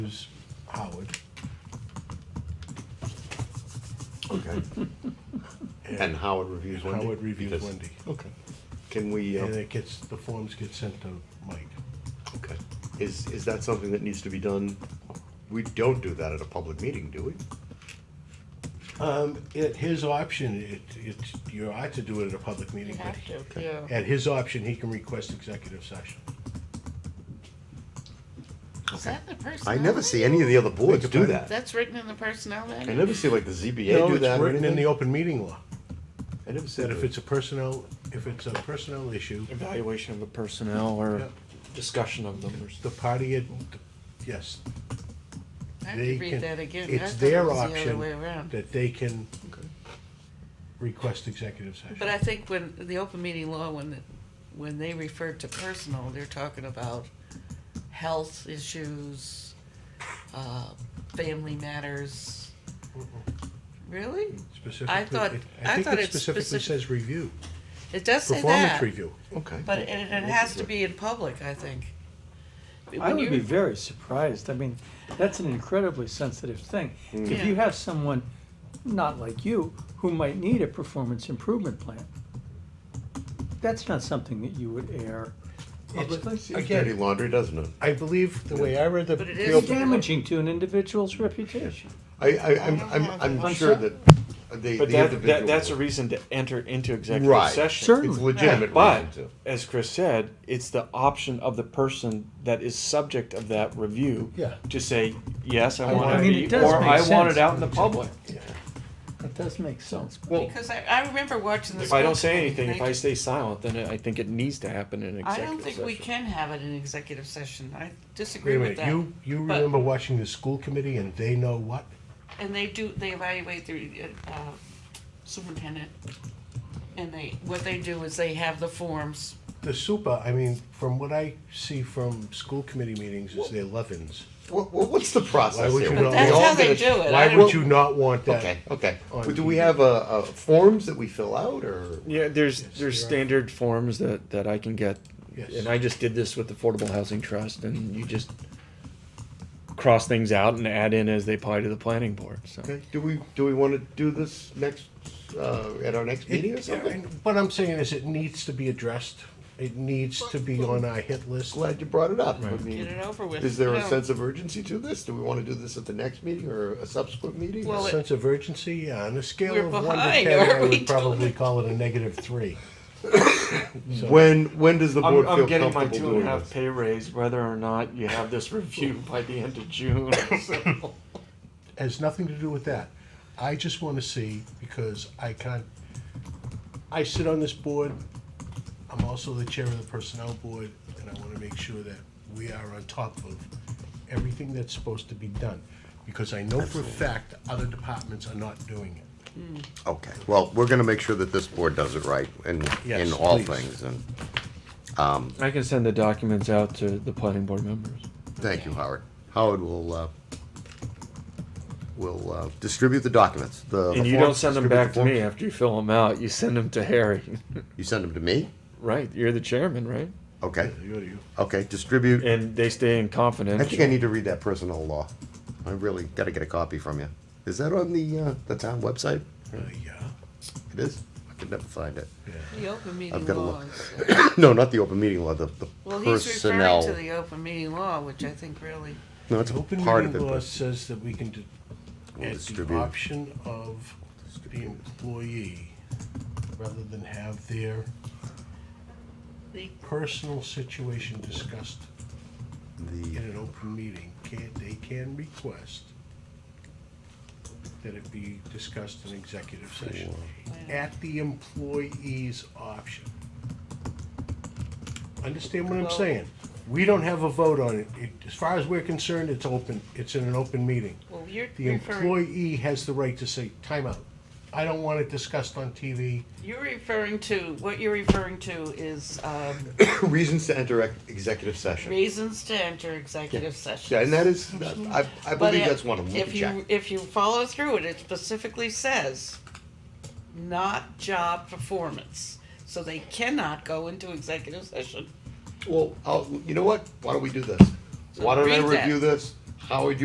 is Howard. Okay. And Howard reviews Wendy? Howard reviews Because- Wendy. Okay. Can we, uh, And it gets, the forms get sent to Mike. okay. Is, is that something that needs to be done? We don't do that at a public meeting, do we? Um, at his option, it, it's, you ought to do it at a public meeting, You but have to, yeah. at his option, he can request executive session. Is that the personnel? I never see manual? any of the other boards Beg do your that. That's written in the personnel I manual? never see like the ZBA No, do it's that or written in the anything. open meeting law, I never see that if that. it's a personnel, if it's a personnel issue, evaluation of the personnel or Yeah. discussion of them or the party, had- yes, I have they to can- read that again. I it's thought it their was The other option. way around. that they can request executive But session. I think when, the open meeting law, when, the- when they refer to personal, they're talking about health issues, uh, family matters. Really? I Specifically, thought- it- I I thought think it it's specifically specif- says review, It does say performance that, review. Okay. but it, it has to be in public, I think. I When would you- be very surprised. I mean, that's an incredibly sensitive thing. If you Yeah. have someone not like you who might need a performance improvement plan, that's not something that you would air publicly. It's- Seems dirty Again, laundry, doesn't it? I believe the way I read the. But it the is It's open- damaging to an individual's reputation. I, I, I'm, I'm, I'm I'm sure sorry. that they, the But that, that, individual. that's a reason to enter into executive Right. session. Sure. It's a legitimate reason But to. as Chris said, it's the option of the person that is subject of that review Yeah. to say yes, I, I want mean, to it be, does or make I want sense it out in to the public. That does make sense. Well, Because I, I remember watching this. if I one don't say time, anything, they if I just- stay silent, then I think it needs to happen in I executive don't think session. we can have it in executive session. I Wait disagree a minute, with that. you, you But- remember watching the school committee and they know what? And they do, they evaluate the uh, superintendent. And they, what they do is they have the forms. The super, I mean, from what I see from school committee meetings is they're leavens. What, what- what's the Why process would here? you We not- That's all how they gonna- do it. I Why don't- would you not want that? Okay, okay. On Well, Do we TV. have, uh, uh, forms that we fill out or? Yeah, there's there's you're right. standard forms that that I can get, Yes. and I just did this with Affordable Housing Trust, and you just cross things out and add in as they apply to the planning board. So Okay, do we, do we wanna do this next, uh, at our next meeting or It- and something? What I'm saying is it needs to be addressed. It needs to be on our hit list. Glad you brought it up. I Get it mean, over with. is there a No. sense of urgency to this? Do we wanna do this at the next meeting or a subsequent meeting? Well, it- Sense of urgency, yeah, on a scale We're of one to behind, ten, I aren't we, would probably call it a negative three. When, when does the board I'm, feel getting my comfortable two and doing a half this? pay raise, whether or not you have this review by the end of June. Has nothing to do with that. I just wanna see, because I can't, I sit on this board, I'm also the chair of the personnel board, and I wanna make sure that we are on top of everything that's supposed to be done. Because I know for a fact other departments are not doing it. Okay, well, we're gonna make sure that this board does it right in, Yes, in all please. things, and, I can send the documents out to the planning board members. thank you, Howard. Howard will, uh, will, uh, distribute the documents, the. And the you forms, don't send them distribute back the to me forms. after you fill them out. You send them to Harry. You send them to me? right, you're the chairman, right? Okay, You- you- okay, distribute, And they stay in confidence. I think I need to read that personnel law. I really gotta get a copy from you. Is that on the, uh, the town website? uh, Yeah, It is? I could never find it. The open meeting gotta law. look. is- No, not the open meeting law, the, the Well, he's referring personnel. to the open meeting law, which I think really, No, it's The open part of meeting it, law but says that we can, do- We'll at the distribute. option of the employee, rather than have their the personal situation discussed in the, an open meeting, can, they can request that it be discussed in executive session, at the employee's option. Understand what I'm Well- saying? We don't have a vote on it. It, as far as we're concerned, it's open, it's in an open meeting. well, you're The referring, employee has the right to say, timeout. I don't want it discussed on TV. you're referring to, what you're referring to is um, Reasons to enter ex- executive session. reasons to enter executive session. Yeah, and that is, I, I But believe if- that's one of them. We If can check. you, if you follow through it, it specifically says, not job performance. So they cannot go into executive session. Well, I'll, you know what? Why don't we do this? Why don't I Read that. review this? Howard,